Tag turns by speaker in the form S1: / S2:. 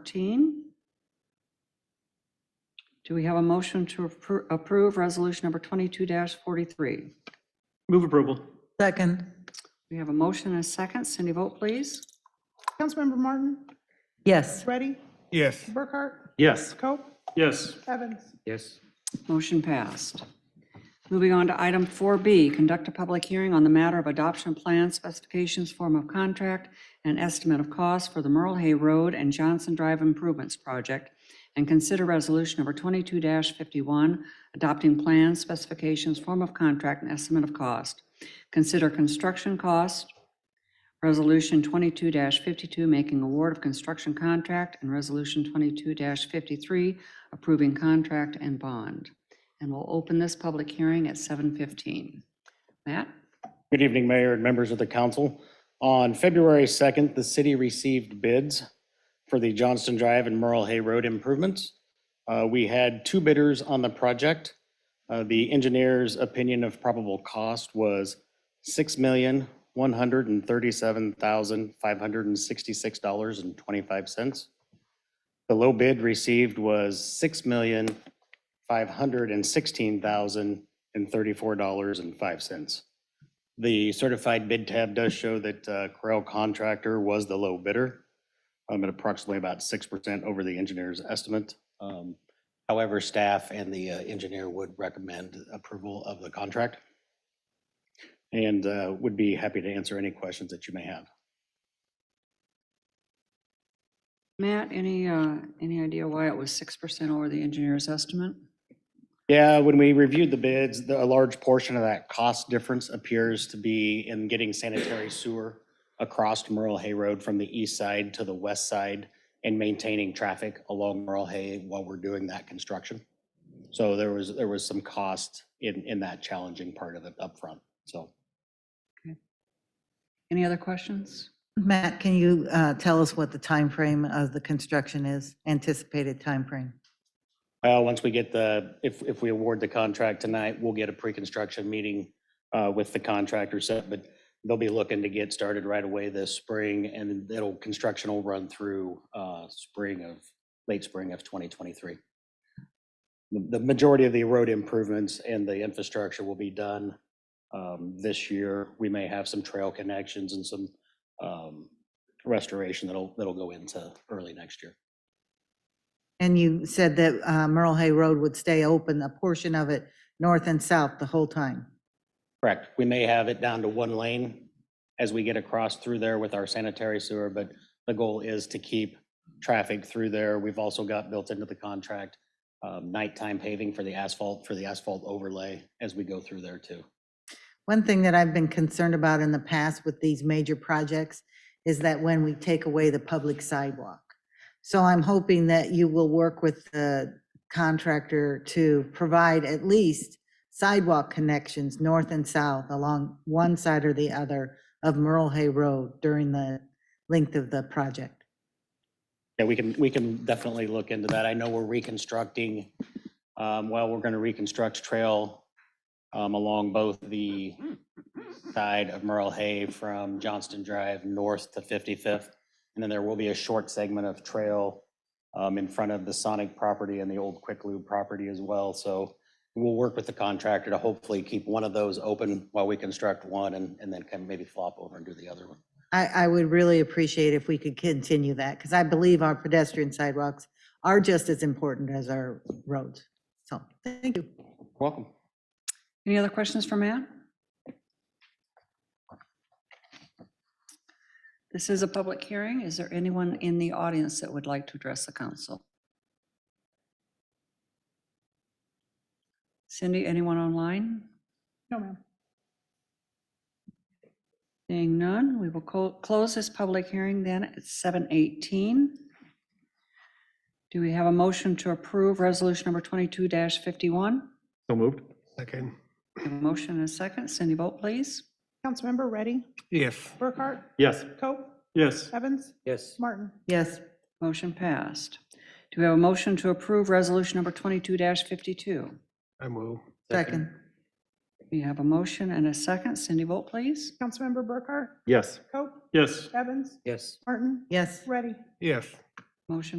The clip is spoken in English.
S1: 14. Do we have a motion to appro- approve Resolution Number 22-43?
S2: Move approval.
S3: Second.
S1: We have a motion and a second. Cindy, vote please.
S4: Councilmember Martin,
S3: Yes.
S4: Ready,
S5: yes,
S4: Burkhart,
S2: Yes.
S4: Coe,
S2: Yes.
S4: Evans.
S2: Yes.
S1: Motion passed. Moving on to item 4B, conduct a public hearing on the matter of adoption plan specifications, form of contract, and estimate of cost for the Merle Hay Road and Johnson Drive Improvements Project, and consider resolution number 22-51, adopting plan specifications, form of contract, and estimate of cost. Consider construction cost, Resolution 22-52, making award of construction contract, and Resolution 22-53, approving contract and bond. And we'll open this public hearing at 7:15. Matt?
S6: Good evening, Mayor and members of the council. On February 2nd, the city received bids for the Johnston Drive and Merle Hay Road improvements. Uh, We had two bidders on the project. Uh, The engineer's opinion of probable cost was $6,137,566.25. The low bid received was $6,516,034.05. The certified bid tab does show that uh, Corel Contractor was the low bidder, um, at approximately about 6% over the engineer's estimate. Um, However, staff and the uh, engineer would recommend approval of the contract and uh, would be happy to answer any questions that you may have.
S1: Matt, any, uh, any idea why it was 6% over the engineer's estimate?
S6: Yeah, when we reviewed the bids, the, a large portion of that cost difference appears to be in getting sanitary sewer across Merle Hay Road from the east side to the west side and maintaining traffic along Merle Hay while we're doing that construction. So there was, there was some cost in, in that challenging part of it upfront, so.
S1: Any other questions?
S3: Matt, can you uh, tell us what the time frame of the construction is, anticipated time frame?
S6: Well, Uh, once we get the, if, if we award the contract tonight, we'll get a pre-construction meeting uh, with the contractor set, but they'll be looking to get started right away this spring, and it'll, construction will run through uh, spring of, late spring of 2023. The the majority of the road improvements and the infrastructure will be done um, this year. We may have some trail connections and some um, restoration that'll, that'll go into early next year.
S3: And you said that uh, Merle Hay Road would stay open, a portion of it, north and south, the whole time.
S6: Correct. We may have it down to one lane as we get across through there with our sanitary sewer, but the goal is to keep traffic through there. We've also got built into the contract um, nighttime paving for the asphalt, for the asphalt overlay as we go through there too.
S3: One thing that I've been concerned about in the past with these major projects is that when we take away the public sidewalk. So I'm hoping that you will work with the contractor to provide at least sidewalk connections north and south along one side or the other of Merle Hay Road during the length of the project.
S6: Yeah, we can, we can definitely look into that. I know we're reconstructing, um, well, we're going to reconstruct trail um, along both the side of Merle Hay from Johnston Drive north to 55th. And then there will be a short segment of trail um, in front of the Sonic property and the old Quick Lube property as well. So we'll work with the contractor to hopefully keep one of those open while we construct one and, and then can maybe flop over and do the other one.
S3: I, I would really appreciate if we could continue that because I believe our pedestrian sidewalks are just as important as our roads. So, thank you.
S6: Welcome.
S1: Any other questions for Matt? This is a public hearing. Is there anyone in the audience that would like to address the council? Cindy, anyone online?
S4: No, ma'am.
S1: Seeing none, we will co- close this public hearing then at 7:18. Do we have a motion to approve Resolution Number 22-51?
S2: So moved.
S5: second,
S1: We have a Motion and a second. Cindy, vote please.
S4: Councilmember Ready,
S5: yes,
S4: Burkhart,
S2: Yes.
S4: Coe,
S2: Yes.
S4: Evans,
S6: Yes.
S4: Martin.
S3: Yes,
S1: Motion passed. Do we have a motion to approve Resolution Number 22-52?
S5: I move,
S3: second.
S1: We have a motion and a second. Cindy, vote please.
S4: Councilmember Burkhart,
S2: Yes.
S4: Coe,
S2: Yes.
S4: Evans,
S6: Yes.
S4: Martin,
S3: Yes,
S4: Ready,
S5: yes,
S1: Motion